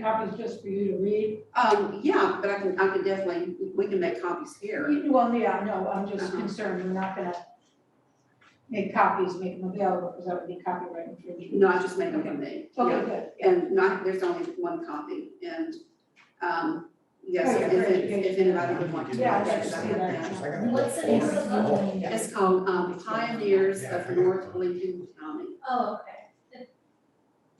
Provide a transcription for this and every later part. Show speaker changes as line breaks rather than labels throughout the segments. copies just for you to read?
Um, yeah, but I can, I can definitely, we can make copies here.
You- Well, yeah, no, I'm just
Uh-huh.
concerned, we're not gonna make copies, make them available, because that would be copyright infringement.
No, I just make them for me.
Okay, good.
Yeah. And not, there's only one copy and, um, yes,
Okay,
if,
great.
if if anybody would want to.
Yeah,
do that,
that's-
I have that.
What's the name of the company?
It's called um, Pioneers of North Lincoln County.
Oh, okay.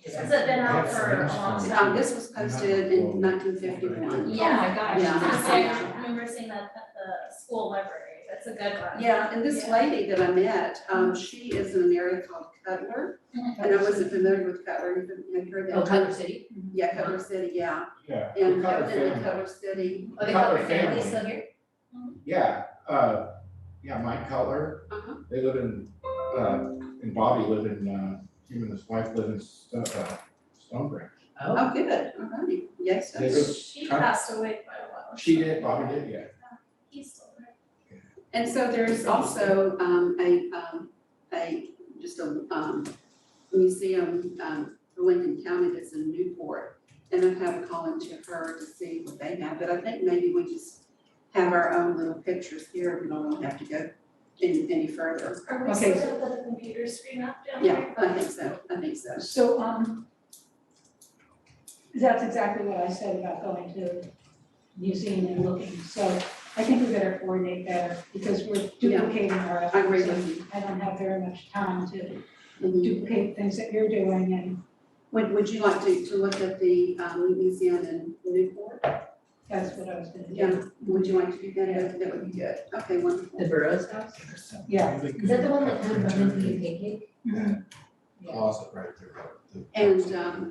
Has it been out for a long time?
Um, this was posted in nineteen fifty-one.
Yeah, my
gosh. Yeah.
I remember seeing that at the school library, that's a good one.
Yeah, and this lady that I met, um, she is in an area called Cutler, and I wasn't familiar with Cutler, you haven't- have you heard that?
Oh, Cutler City?
Yeah, Cutler City, yeah,
Yeah.
and
Cutler family.
evidently Cutler City,
Oh, they
Cutler
Cutler
family.
family still here?
Yeah, uh, yeah, Mike Cutler,
Uh-huh.
they live in, uh, and Bobby live in, uh, him and his wife live in Sto- uh, Stone Branch.
oh, good, alrighty, yes,
They
that's-
live-
She passed away quite a while.
She did, Bobby did, yeah.
He's still there.
and so there's also, um, a, um, a, just a, um, museum, um, for Lincoln County that's in Newport, and I have a call into her to see what they have, but I think maybe we just have our own little pictures here, we don't have to go any, any further.
Are we
Okay,
still gonna put the computer screen up down
Yeah,
there?
I think so, I think so.
So, um, that's exactly what I said about going to the museum and looking, so I think we better coordinate better, because we're duplicating our efforts.
I agree with you.
I don't have very much time to
Mhm.
duplicate things that you're doing, and
Would, would you like to, to look at the, um, museum in Newport?
that's what I was gonna
Yeah,
do.
would you like to do that? That would be good. Okay,
The
wonderful.
Burroughs house?
Yeah.
Is that the one that would come in the pancake?
Closet right there. the-
And, um,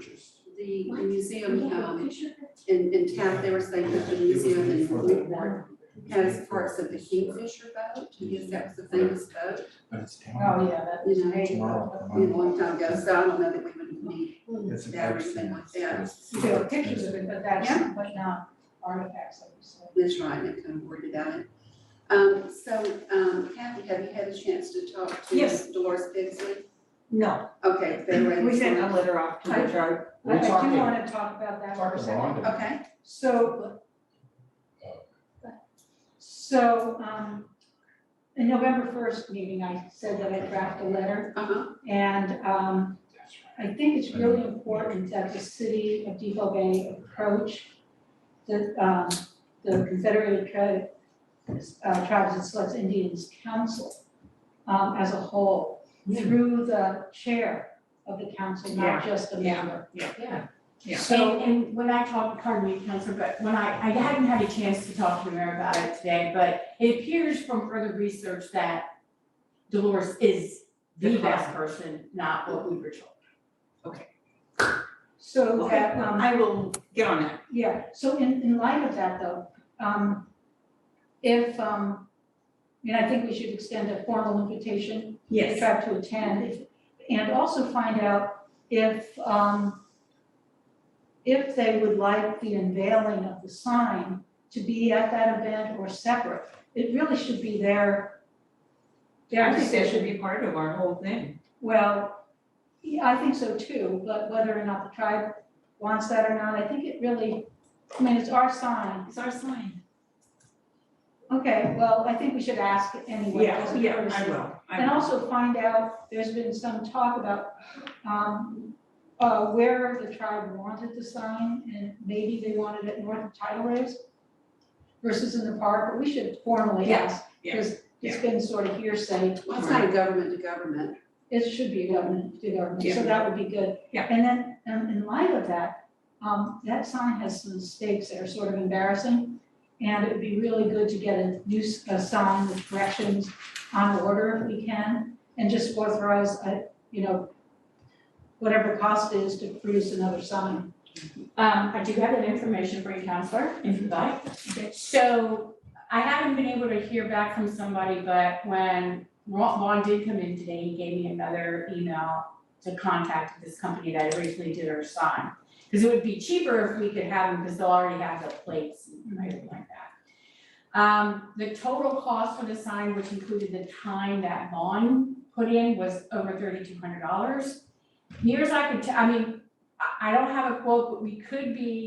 The
What?
museum, um,
Picture of it.
in, in town, they were saying that the museum in Newport has parts of the Kingfisher boat, because that was a famous boat,
But it's down
Oh, yeah, that
you know,
great.
tomorrow.
you know, a long time ago, so I don't know that we would need,
It's a
Yeah,
good
everything
thing.
like that.
You can have pictures of it, but that's,
Yeah.
but not artifacts, like you said.
this right, I'm kind of worried about it. Um, so, um, Kathy, have you had a chance to talk to
Yes.
Dolores Bixley?
No,
Okay, they were.
we sent a letter off to the charter.
We're
I do
talking,
wanna talk about that for a
talking
second.
Rhonda.
Okay,
So. So, um, in November first meeting, I said that I draft a letter
uh-huh,
and, um, I think it's really important that the city of Depot Bay approach the, um, the Confederated Tri- uh, Tribes and Select Indians Council, um, as a whole, through the chair of the council, not just a member.
Yeah.
Yeah.
So,
And, and when I talked, pardon me, Counselor, but when I, I hadn't had a chance to talk to the mayor about it today, but it appears from further research that Dolores is the
The
best
client.
person, not what we were told.
so that, um,
I will get on that.
Yeah, so in, in light of that though, um, if, um, I mean, I think we should extend a formal invitation to the tribe to attend, if- and also find out if, um, if they would like the unveiling of the sign to be at that event or separate. It really should be their, their
I think that
decision.
should be part of our whole thing.
Well, yeah, I think so too, but whether or not the tribe wants that or not, I think it really, I mean, it's our sign.
It's our sign.
Okay, well, I think we should ask anyway, as
Yeah,
a
yeah, I
courtesy.
will. I
And
will.
also find out, there's been some talk about, um, uh, where the tribe wanted the sign, and maybe they wanted it north of tidal waves versus in the park, but we should formally
Yeah,
ask,
yeah,
because it's been sort of hearsay.
well, it's not a government to government,
It should be government to government, so
Yeah.
that would be good.
Yeah.
And then, um, in light of that, um, that sign has some mistakes that are sort of embarrassing. And it would be really good to get a new, s- a sign with corrections on order if we can, and just authorize, uh, you know, whatever the cost is to produce another sign.
Um, I do have that information for you, counselor, if you'd like. So I haven't been able to hear back from somebody, but when Ron Vaughn did come in today, he gave me another email to contact this company that originally did our sign. Because it would be cheaper if we could have them, because they'll already have the plates and everything like that. Um, the total cost for the sign, which included the time that Vaughn put in, was over thirty-two hundred dollars. Near as I could, t- I mean, I, I don't have a quote, but we could be